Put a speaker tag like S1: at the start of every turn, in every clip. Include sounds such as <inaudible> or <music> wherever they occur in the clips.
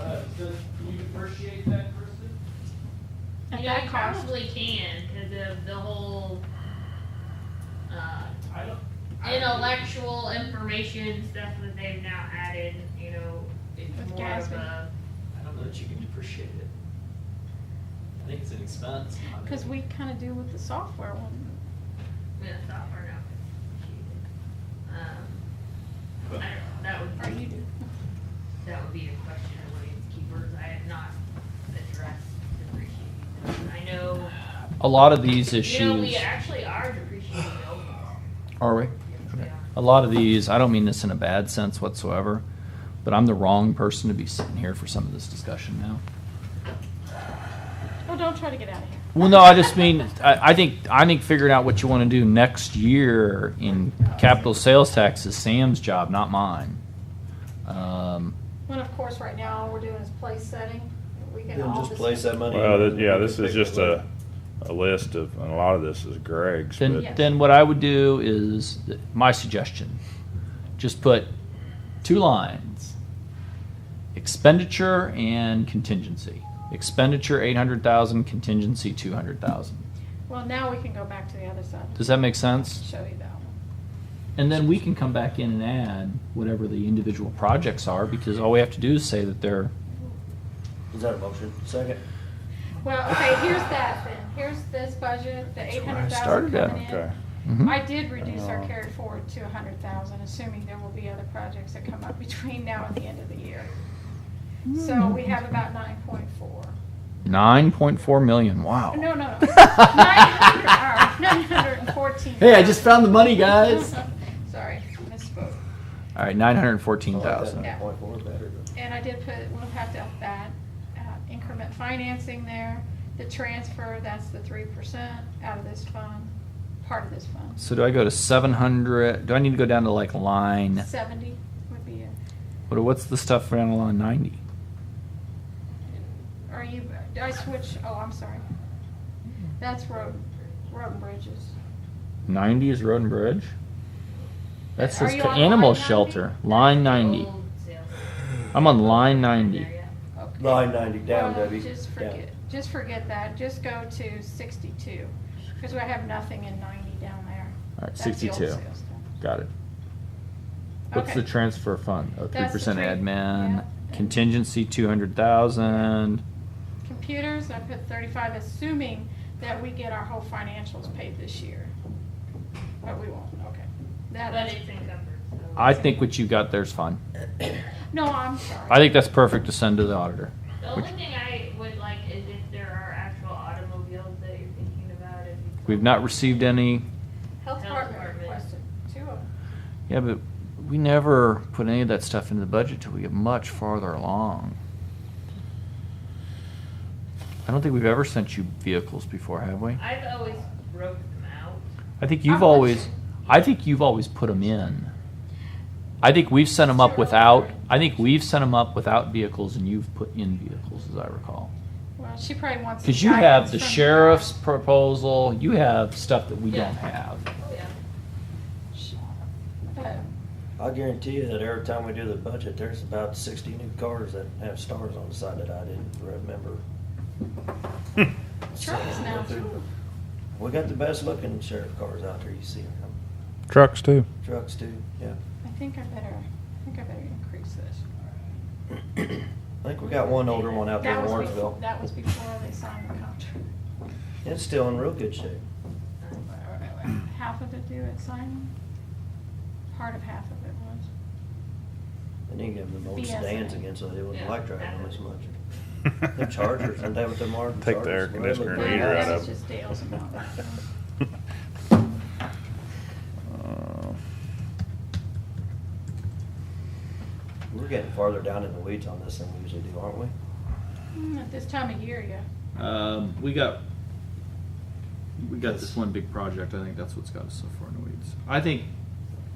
S1: Uh, Does, do you appreciate that, Kristen?
S2: At
S3: You know,
S2: that
S3: you
S2: cost.
S3: probably can because of the whole uh,
S1: I don't. I-
S3: intellectual information stuff that they've now added. You know, it's
S2: With
S3: more
S2: Gatsby.
S3: of a
S4: I don't know that you can depreciate it. I think it's an expense. I mean,
S2: Cause we kinda do with the software one.
S3: yeah, software now. Um, I don't know. That would
S2: Or
S3: be,
S2: you do.
S3: that would be the question of Williams Keepers. I have not addressed depreciating. those. I know.
S5: A lot of these
S3: You know, we
S5: issues,
S3: actually are depreciating buildings.
S5: are we?
S3: if we are.
S5: A lot of these, I don't mean this in a bad sense whatsoever, but I'm the wrong person to be sitting here for some of this discussion now.
S2: Oh, don't try to get out of here.
S5: Well, no, I just mean, I, I think, I think figuring out what you want to do next year in capital sales tax is Sam's job, not mine. Um,
S2: <laughs> When of course, right now, all we're doing is place setting. We can
S6: Then
S2: all
S6: just place that money.
S7: Well, th- yeah, this is just a, a list of, and a lot of this is Greg's, but.
S5: Then, then what I would do is, my suggestion, just put two lines. Expenditure and contingency. Expenditure eight hundred thousand, contingency two hundred thousand.
S2: Well, now we can go back to the other side.
S5: Does that make sense?
S2: Show you that one.
S5: And then we can come back in and add whatever the individual projects are, because all we have to do is say that they're,
S6: Is that a motion? Second?
S2: Well, okay, here's that then. Here's this budget, the eight
S5: where I
S2: hundred thousand
S5: started at.
S2: coming
S7: Okay.
S2: in.
S5: Mm-hmm.
S2: I did reduce our carry forward to a hundred thousand, assuming there will be other projects that come up <laughs> between now and the end of the year. So
S5: Hmm.
S2: we have about nine point four.
S5: nine point four million,
S2: <laughs>
S5: wow.
S2: No, no, no. Nine <laughs> hundred, uh, nine hundred and fourteen.
S5: Hey, I just found the money, guys.
S2: <laughs> Sorry, misspoke.
S5: All right, nine hundred and fourteen thousand.
S2: Yeah.
S6: Point four better.
S2: And I did put, we'll have to have that uh, increment financing there, the transfer, that's the three percent out of this fund, part of this fund.
S5: So do I go to seven hundred, do I need to go down to like line?
S2: Seventy would be it.
S5: What, what's the stuff around on 90?
S2: Are you, did I switch, oh, I'm sorry. That's road, road and bridges.
S5: 90 is Road and Bridge? That
S2: Are
S5: says
S2: you
S5: co-
S2: on
S5: animal
S2: line Oh. 90?
S5: shelter. Line 90.
S3: Old sales.
S5: I'm on line 90.
S3: Yeah,
S2: Okay.
S6: Line ninety, down,
S2: Well,
S6: Debbie.
S2: Just
S6: Down.
S2: forget, just forget that, just go to sixty-two, because we have nothing in ninety down there.
S5: All right,
S2: That's the old
S5: 62.
S2: sales tax.
S5: Got it. What's
S2: Okay.
S5: the transfer fund? Oh, 3%
S2: That's the three-
S5: admin.
S2: yeah.
S5: Contingency 200,000.
S2: Computers, I put thirty-five, assuming that we get our whole financials paid this year. But we won't, okay. That,
S3: But it's encumbered, so.
S5: I think what you got there's fine.
S2: no, I'm sorry.
S5: I think that's perfect to send to the auditor.
S3: The only thing I would like is if there are actual automobiles that you're thinking about. if you-
S5: We've not received any.
S2: Health
S3: Health
S2: department
S3: department.
S2: requested two of them.
S5: Yeah, but we never put any of that stuff into the budget till we get much farther along. I don't think we've ever sent you vehicles before, have we?
S3: I've always broke them out.
S5: I think
S2: I've
S5: you've
S2: let
S5: always,
S2: you-
S5: I think you've always put them in. I think we've sent them up
S2: Zero.
S5: without, I think we've sent them up without vehicles and you've put in vehicles, as I recall.
S2: Well, she probably wants.
S5: Because you have the
S2: guidance from-
S5: sheriff's proposal, you have stuff that we
S3: Yeah.
S5: don't have.
S3: Yeah.
S2: But
S6: I guarantee you that every time we do the budget, there's about sixty new cars that have stars on the side that I didn't remember.
S7: <laughs>
S2: Trucks now, too.
S6: We got the best looking sheriff cars out there, you see them.
S7: Trucks too.
S6: Trucks too, yeah.
S2: I think I better, I think I better increase this.
S6: I think we got one older one out there
S2: That
S6: in
S2: was befo-
S6: Warrensville.
S2: That was before they signed the contract.
S6: It's still in real good shape.
S2: Half of it due at signing? Part of half of it was.
S6: I didn't give them old
S2: BSA.
S6: sedans again, so they wouldn't
S3: Yeah.
S6: like driving them as much. Them Chargers, aren't they what they're marked?
S7: Take the air
S6: Chargers?
S7: conditioner
S2: No,
S7: heater
S2: that
S7: out
S2: was
S7: of.
S2: just Dale's
S7: <laughs>
S2: amount.
S7: <laughs> Uh,
S6: We're getting farther down in the weeds on this than we usually do, aren't we?
S2: Hmm, At this time of year, yeah.
S5: Um, we got, we got this one big project, I think that's what's got us so far in the weeds. I think,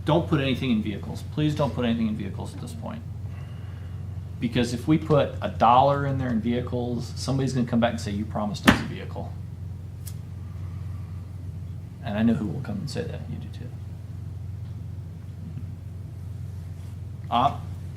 S5: don't put anything in vehicles, please don't put anything in vehicles at this point. Because if we put a dollar in there in vehicles, somebody's gonna come back and say, you promised us a vehicle. And I know who will come and say that, you do too. Uh,